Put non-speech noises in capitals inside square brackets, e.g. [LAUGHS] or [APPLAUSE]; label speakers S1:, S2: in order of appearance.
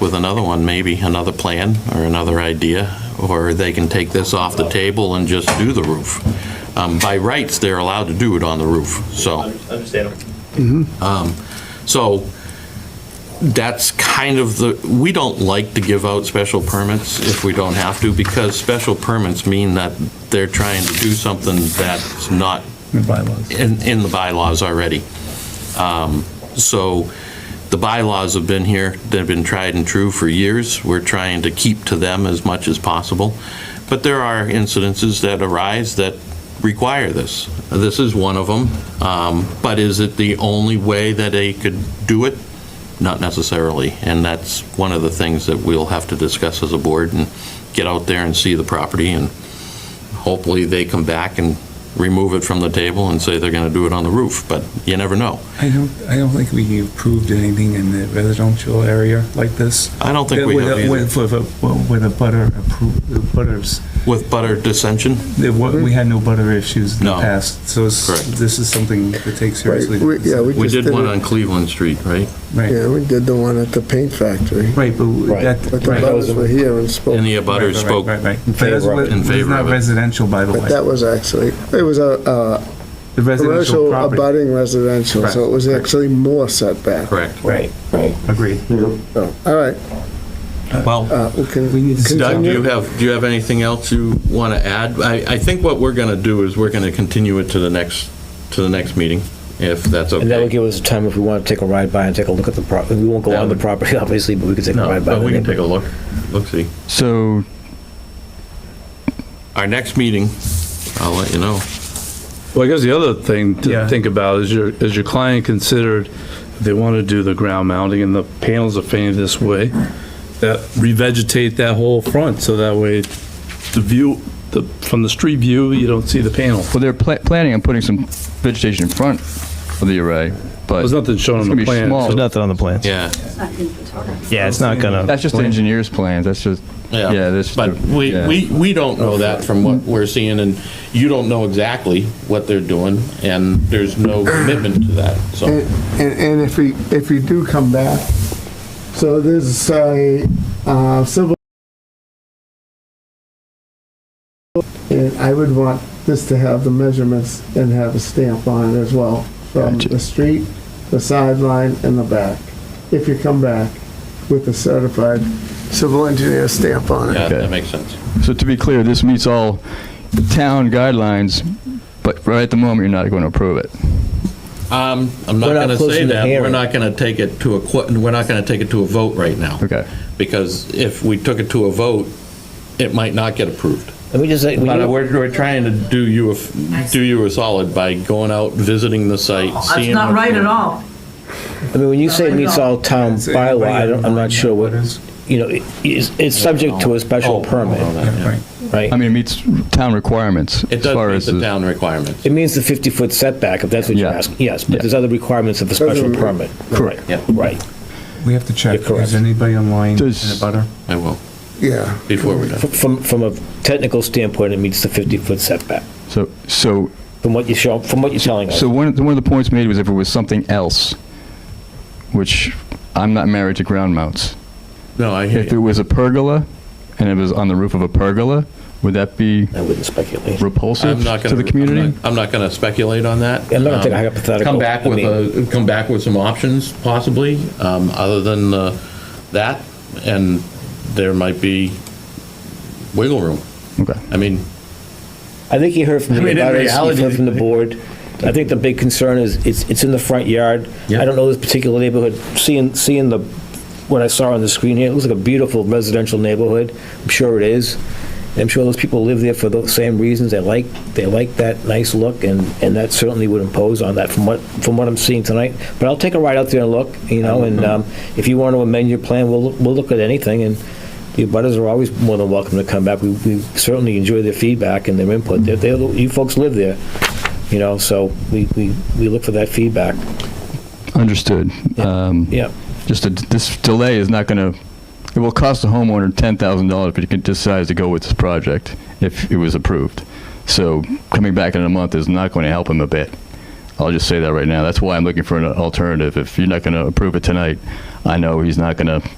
S1: with another one, maybe, another plan or another idea, or they can take this off the table and just do the roof. Um, By rights, they're allowed to do it on the roof, so,
S2: Understandable.
S1: so that's kind of the, we don't like to give out special permits if we don't have to, because special permits mean that they're trying to do something that's not
S3: bylaws.
S1: in, in the bylaws already. Um, So the bylaws have been here, they've been tried and true for years. We're trying to keep to them as much as possible. But there are incidences that arise that require this. This is one of them. Um, But is it the only way that they could do it? Not necessarily. And that's one of the things that we'll have to discuss as a board and get out there and see the property and hopefully they come back and remove it from the table and say they're going to do it on the roof, but you never know.
S3: I don't, I don't think we approved anything in the residential area like this.
S1: I don't think we
S3: With a-
S1: have either.
S3: With, with a, with a butter approved, the butters,
S1: With butter dissension?
S3: there wa- we had no butter issues in the
S1: No.
S3: past, so it's-
S1: Correct.
S3: this is something to take
S4: Right,
S3: seriously.
S4: we- Yeah, we
S1: We
S4: just
S1: did
S4: did
S1: one on
S4: it.
S1: Cleveland Street, right?
S3: Right,
S4: Yeah, we did the one at the paint factory.
S3: right, but
S4: But
S3: that,
S4: the
S3: right.
S4: butters were here and spoke.
S1: And the abutters
S3: Right, right,
S1: spoke.
S3: Right, right. But
S5: favor
S3: that's
S5: of-
S3: what-
S1: in
S3: this is
S1: favor
S3: not
S1: of it.
S3: residential, by the
S4: But
S3: way.
S4: that was actually, it was a uh,
S3: The residential
S4: commercial
S3: property.
S4: abutting residential, so it was
S3: Correct.
S4: actually more setback.
S1: Correct.
S5: Right, right.
S3: Agreed.
S4: So, All right,
S1: Well,
S4: uh, we can.
S3: We need to-
S4: continue.
S1: Doug, do you have, do you have anything else you want to add? I, I think what we're going to do is we're going to continue it to the next, to the next meeting, if that's okay.
S5: And that would give us time if we want to take a ride by and take a look at the property. We won't go
S1: That
S5: on the
S1: would-
S5: property, [LAUGHS] obviously, but we could take a
S1: No,
S5: ride by.
S1: but
S5: the
S1: we can
S5: neighborhood.
S1: take a look, look-see.
S6: So,
S1: Our next meeting, I'll let you know.
S6: well, I guess the other thing
S3: Yeah.
S6: to think about is your, is your client considered, if they want to do the ground mounting and the panels are painted this way, that revegetate that whole front, so that way the view, the, from the street view, you don't see the panel.
S7: Well, they're pla- planning on putting some vegetation in front of the array, but
S6: There's nothing shown
S7: It's
S6: on
S7: gonna
S6: the
S7: be
S6: plan.
S7: small.
S8: There's nothing on the plans.
S1: Yeah.
S8: Yeah, it's not gonna.
S7: that's just the engineer's plans. That's just, yeah, that's.
S1: But we,
S7: yeah.
S1: we, we don't know that from what we're seeing, and you don't know exactly what they're doing, and there's no commitment to that,
S4: And,
S1: so.
S4: and and if we, if we do come back, so there's a uh, civil, and I would want this to have the measurements and have a stamp on it as well, from
S7: Gotcha.
S4: the street, the sideline, and the back, if you come back with a certified civil engineer stamp on
S1: Yeah,
S4: it.
S1: that makes sense.
S7: So to be clear, this meets all town guidelines, but right at the moment, you're not going to approve it.
S1: Um, I'm not
S5: We're not
S1: gonna say
S5: closing the
S1: that, we're
S5: hearing.
S1: not gonna take it to a, que- we're not gonna take it to a vote right now.
S7: Okay.
S1: Because if we took it to a vote, it might not get approved.
S5: Let me just say, we
S1: But
S5: need-
S1: we're, we're trying to do you, a f- do you a solid by going out, visiting the site,
S9: That's
S1: seeing.
S9: not
S1: what's
S9: right
S1: going
S9: at
S1: on.
S9: all.
S5: I mean, when you say it meets all town
S3: Does anybody
S5: bylaw, I don't, I'm not sure what,
S3: have any
S5: you know, it- it's, it's subject to a
S1: Oh,
S5: special
S1: oh,
S5: permit,
S1: that, yeah.
S3: Right.
S5: right?
S7: I mean, it meets town requirements
S1: It
S7: as far as.
S1: does meet the
S7: the-
S1: town requirements.
S5: It means the 50-foot setback, if that's what you're
S7: Yeah.
S5: asking, yes, but
S7: Yeah.
S5: there's other requirements of a special
S4: Doesn't-
S5: permit. Correct.
S1: Yeah.
S5: Right.
S3: We have to check,
S5: You're correct.
S3: is anybody online in
S7: Does-
S3: a butter?
S1: I will,
S4: Yeah.
S1: before we're done.
S5: F- From, from a technical standpoint, it meets the 50-foot setback,
S7: So, so,
S5: from what you show, from what you're telling us.
S7: so one, of the- one of the points made was if it was something else, which I'm not married to ground mounts.
S1: No, I hear
S7: If it
S1: you.
S7: was a pergola and it was on the roof of a pergola, would that be
S5: I wouldn't speculate.
S7: repulsive
S1: I'm not
S7: to
S1: gonna-
S7: the community?
S1: I'm not going to speculate on that.
S5: I'm not gonna take a
S1: Um,
S5: hypothetical.
S1: Come back
S5: I
S1: with
S5: mean-
S1: a, come back with some options possibly, um, other than uh, that, and there might be wiggle room.
S7: Okay.
S1: I mean,
S5: I think you heard from
S1: I mean,
S5: the
S1: in
S5: butters,
S1: reality-
S5: you heard from the board. I think the big concern is, it's, it's in the front yard.
S1: Yeah.
S5: I don't know this particular neighborhood, seeing, seeing the, what I saw on the screen here, it looks like a beautiful residential neighborhood. I'm sure it is. I'm sure those people live there for those same reasons. They like, they like that nice look, and, and that certainly would impose on that from what, from what I'm seeing tonight. But I'll take a ride out there and look, you know, and um, if you want to amend your plan, we'll, we'll look at anything, and the butters are always more than welcome to come back. We we certainly enjoy their feedback and their input. They're- they're- You folks live there, you know, so we, we, we look for that feedback.
S7: Understood. Um,
S5: Yeah,
S7: Just a, this delay is not going to, it will cost the homeowner $10,000 if he decides to go with this project, if it was approved. So coming back in a month is not going to help him a bit. I'll just say that right now. That's why I'm looking for an alternative. If you're not going to approve it tonight, I know he's not going to